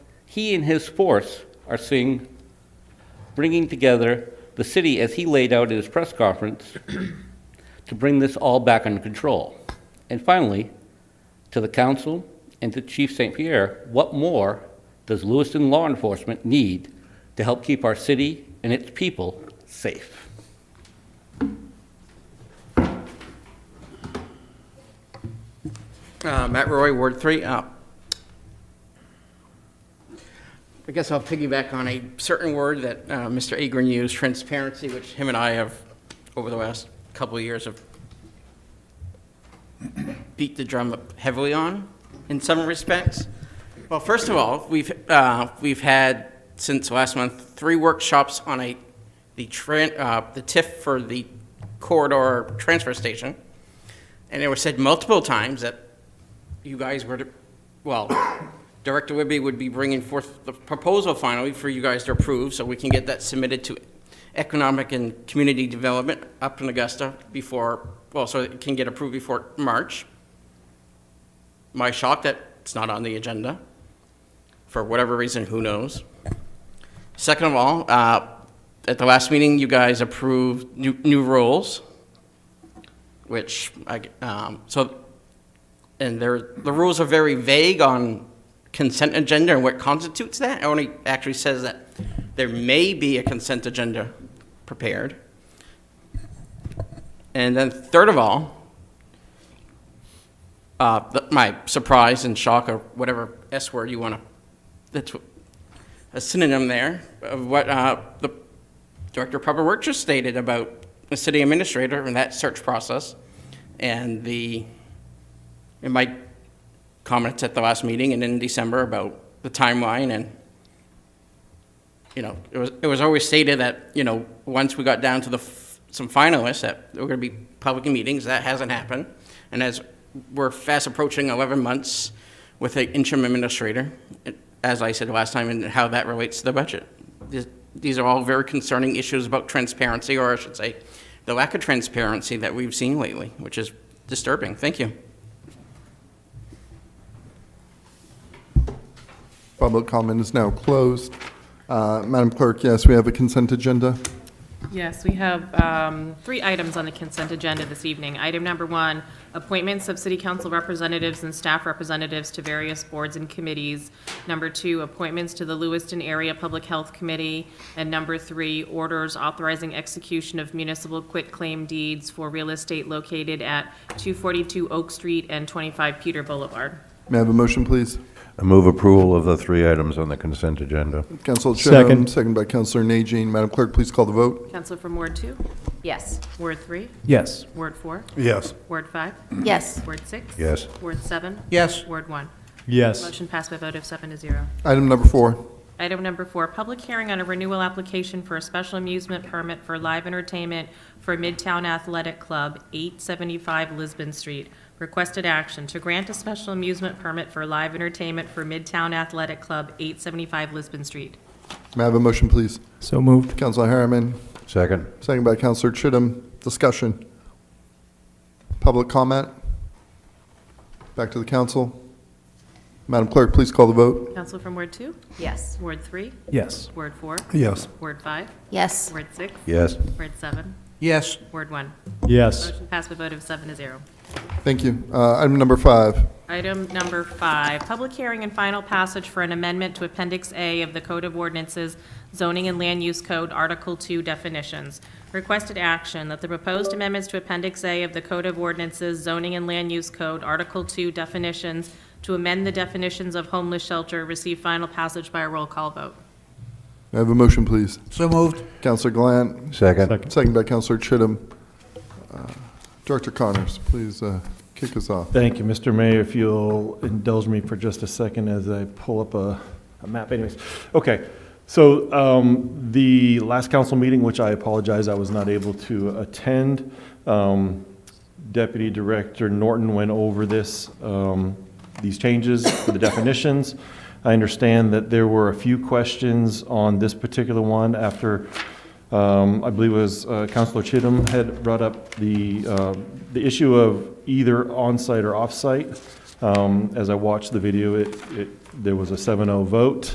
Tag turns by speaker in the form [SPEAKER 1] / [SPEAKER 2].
[SPEAKER 1] He and his force are seeing, bringing together the city as he laid out at his press conference to bring this all back under control. And finally, to the council and to Chief St. Pierre, what more does Lewiston law enforcement need to help keep our city and its people safe?
[SPEAKER 2] Uh, Matt Roy, Ward 3. Uh, I guess I'll piggyback on a certain word that uh, Mr. Agron used, transparency, which him and I have, over the last couple of years, have beat the drum up heavily on in some respects. Well, first of all, we've, uh, we've had, since last month, three workshops on a, the, tran- uh, the TIF for the corridor transfer station. And it was said multiple times that you guys were, to- well, Director Whibby would be bringing forth the proposal finally for you guys to approve, so we can get that submitted to Economic and Community Development up in Augusta before, well, so it can get approved before March. My shock that it's not on the agenda, for whatever reason, who knows? Second of all, uh, at the last meeting, you guys approved new, new rules, which I, um, so and there, the rules are very vague on consent agenda and what constitutes that. It only actually says that there may be a consent agenda prepared. And then third of all, uh, th- my surprise and shock or whatever S word you want to, that's what- a synonym there of what uh, the Director of Public Works just stated about the city administrator and that search process and the in my comments at the last meeting and in December about the timeline and, you know, it was, it was always stated that, you know, once we got down to the, f- some finalists, that there were going to be public meetings, that hasn't happened. And as we're fast approaching 11 months with an interim administrator, it- as I said last time, and how that relates to the budget. These- These are all very concerning issues about transparency, or I should say, the lack of transparency that we've seen lately, which is disturbing. Thank you.
[SPEAKER 3] Public comment is now closed. Uh, Madam Clerk, yes, we have a consent agenda.
[SPEAKER 4] Yes, we have um, three items on the consent agenda this evening. Item number one, appointments of city council representatives and staff representatives to various boards and committees. Number two, appointments to the Lewiston Area Public Health Committee. And number three, orders authorizing execution of municipal quitclaim deeds for real estate located at 242 Oak Street and 25 Peter Boulevard.
[SPEAKER 3] May I have a motion, please?
[SPEAKER 5] I move approval of the three items on the consent agenda.
[SPEAKER 3] Council
[SPEAKER 6] Second.
[SPEAKER 3] Shannon, second by Councilor Najin. Madam Clerk, please call the vote.
[SPEAKER 4] Counselor from Ward two?
[SPEAKER 7] Yes.
[SPEAKER 4] Ward three?
[SPEAKER 6] Yes.
[SPEAKER 4] Ward four?
[SPEAKER 5] Yes.
[SPEAKER 4] Ward five?
[SPEAKER 7] Yes.
[SPEAKER 4] Ward six?
[SPEAKER 5] Yes.
[SPEAKER 4] Ward seven?
[SPEAKER 2] Yes.
[SPEAKER 4] Ward one?
[SPEAKER 6] Yes.
[SPEAKER 4] Motion passed by a vote of seven to zero.
[SPEAKER 3] Item number four.
[SPEAKER 4] Item number four, public hearing on a renewal application for a special amusement permit for live entertainment for Midtown Athletic Club, 875 Lisbon Street. Requested action to grant a special amusement permit for live entertainment for Midtown Athletic Club, 875 Lisbon Street.
[SPEAKER 3] May I have a motion, please?
[SPEAKER 6] So moved.
[SPEAKER 3] Councilor Harriman,
[SPEAKER 5] Second?
[SPEAKER 3] second by Councilor Chittum. Discussion. Public comment. Back to the council. Madam Clerk, please call the vote.
[SPEAKER 4] Counsel from Ward two,
[SPEAKER 7] Yes.
[SPEAKER 4] Ward three,
[SPEAKER 6] Yes.
[SPEAKER 4] Ward four,
[SPEAKER 3] Yes.
[SPEAKER 4] Ward five,
[SPEAKER 7] Yes.
[SPEAKER 4] Ward six,
[SPEAKER 5] Yes.
[SPEAKER 4] Ward seven,
[SPEAKER 2] Yes.
[SPEAKER 4] Ward one.
[SPEAKER 6] Yes.
[SPEAKER 4] Motion passed by a vote of seven to zero.
[SPEAKER 3] Thank you. Uh, Item number five.
[SPEAKER 4] Item number five, public hearing and final passage for an amendment to Appendix A of the Code of Ordinances, Zoning and Land Use Code, Article 2 definitions. Requested action that the proposed amendments to Appendix A of the Code of Ordinances, Zoning and Land Use Code, Article 2 definitions, to amend the definitions of homeless shelter, receive final passage by a roll call vote.
[SPEAKER 3] May I have a motion, please?
[SPEAKER 2] So moved.
[SPEAKER 3] Councilor Glant,
[SPEAKER 5] Second?
[SPEAKER 6] Second.
[SPEAKER 3] second by Councilor Chittum. Uh, Director Connors, please uh, kick us off.
[SPEAKER 6] Thank you, Mr. Mayor. If you'll indulge me for just a second as I pull up a, a map anyways. Okay, so, um, the last council meeting, which I apologize, I was not able to attend. Um, Deputy Director Norton went over this, um, these changes for the definitions. I understand that there were a few questions on this particular one after, um, I believe it was uh, Counselor Chittum had brought up the, uh, the issue of either onsite or offsite. Um, As I watched the video, it, it, there was a 7-0 vote.